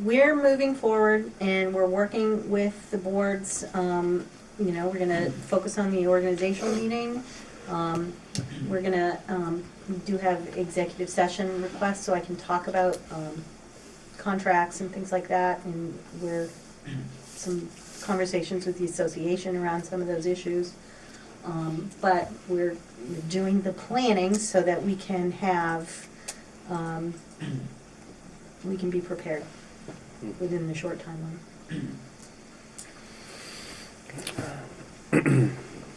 we're moving forward and we're working with the boards, um, you know, we're gonna focus on the organizational meeting. Um, we're gonna, um, we do have executive session requests, so I can talk about, um, contracts and things like that, and we're, some conversations with the association around some of those issues. Um, but we're doing the planning so that we can have, um, we can be prepared within the short timeline.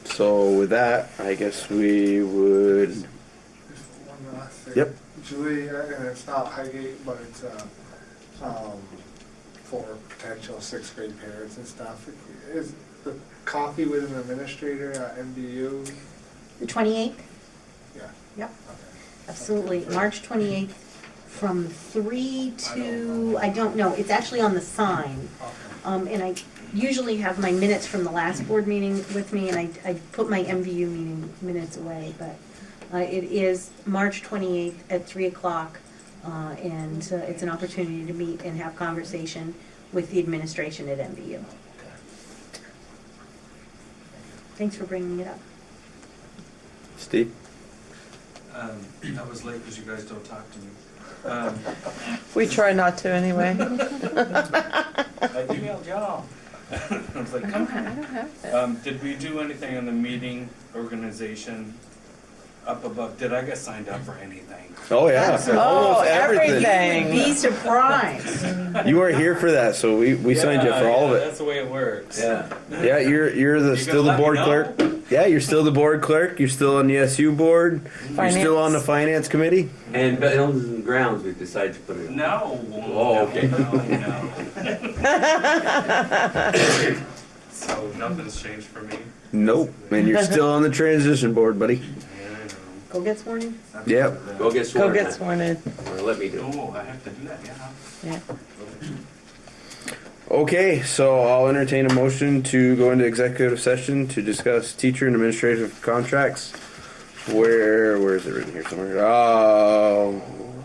So with that, I guess we would. Just one last thing. Yep. Julie, uh, and it's not Highgate, but it's, uh, um, for potential sixth grade parents and stuff. Is the coffee with an administrator at MBU? The twenty-eighth? Yeah, Yep. okay. Absolutely, March twenty-eighth, from three I don't to, know. I don't know, it's actually on the sign. Um, and I usually have my minutes from the last board meeting with me, and I, I put my MVU meeting minutes away, but, uh, it is March twenty-eighth at three o'clock, uh, and uh, it's an opportunity to meet and have conversation with the administration at MVU. Thanks for bringing it up. Steve? Um, I was late because you guys don't talk to me. Um, We try not to anyway. I emailed y'all. I was like, I come don't ha- on. I don't have that. Um, did we do anything on the meeting organization up above? Did I get signed up for anything? Oh yeah, Absolutely. almost Oh, everything. You'd Be surprised. You were here for that, so we, we signed you up for Yeah, all of yeah, it. That's the way it works. Yeah, yeah. You're you're the You still the gonna board let me know? clerk. Yeah, you're still the board clerk. You're still on the SU board. You're still on the finance committee. And Buildings and Grounds, we've decided to put it on. No. Oh, okay. No, no. So nothing's changed for me. Nope. And you're still on the transition board, buddy. Yeah, Go get sworn in. I know. Yep. Go get Go sworn in. get sworn in. Or Let me do it. Oh, I have to do that, yeah. Yeah. Okay, so I'll entertain a motion to go into executive session to discuss teacher and administrative contracts. Where where is it written here somewhere? Uh,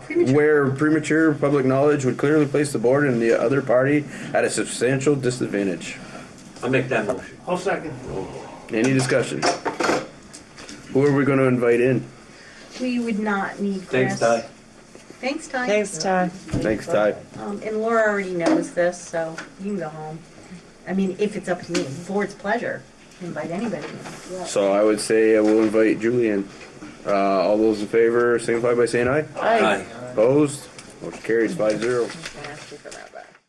Premature. Where premature public knowledge would clearly place the board and the other party at a substantial disadvantage. I'll make that motion. I'll second. Any discussion? Who are we gonna invite in? We would not need Chris. Thanks, Ty. Thanks, Ty. Thanks, Ty. Thanks, Ty. Um, and Laura already knows this, so you can go home. I mean, if it's up to me, board's pleasure, invite anybody. in. So I would say we'll invite Julie in. Uh, all those in favor signify by saying aye. Aye. Opposed? Motion carries five zero. I'm gonna ask you for that back.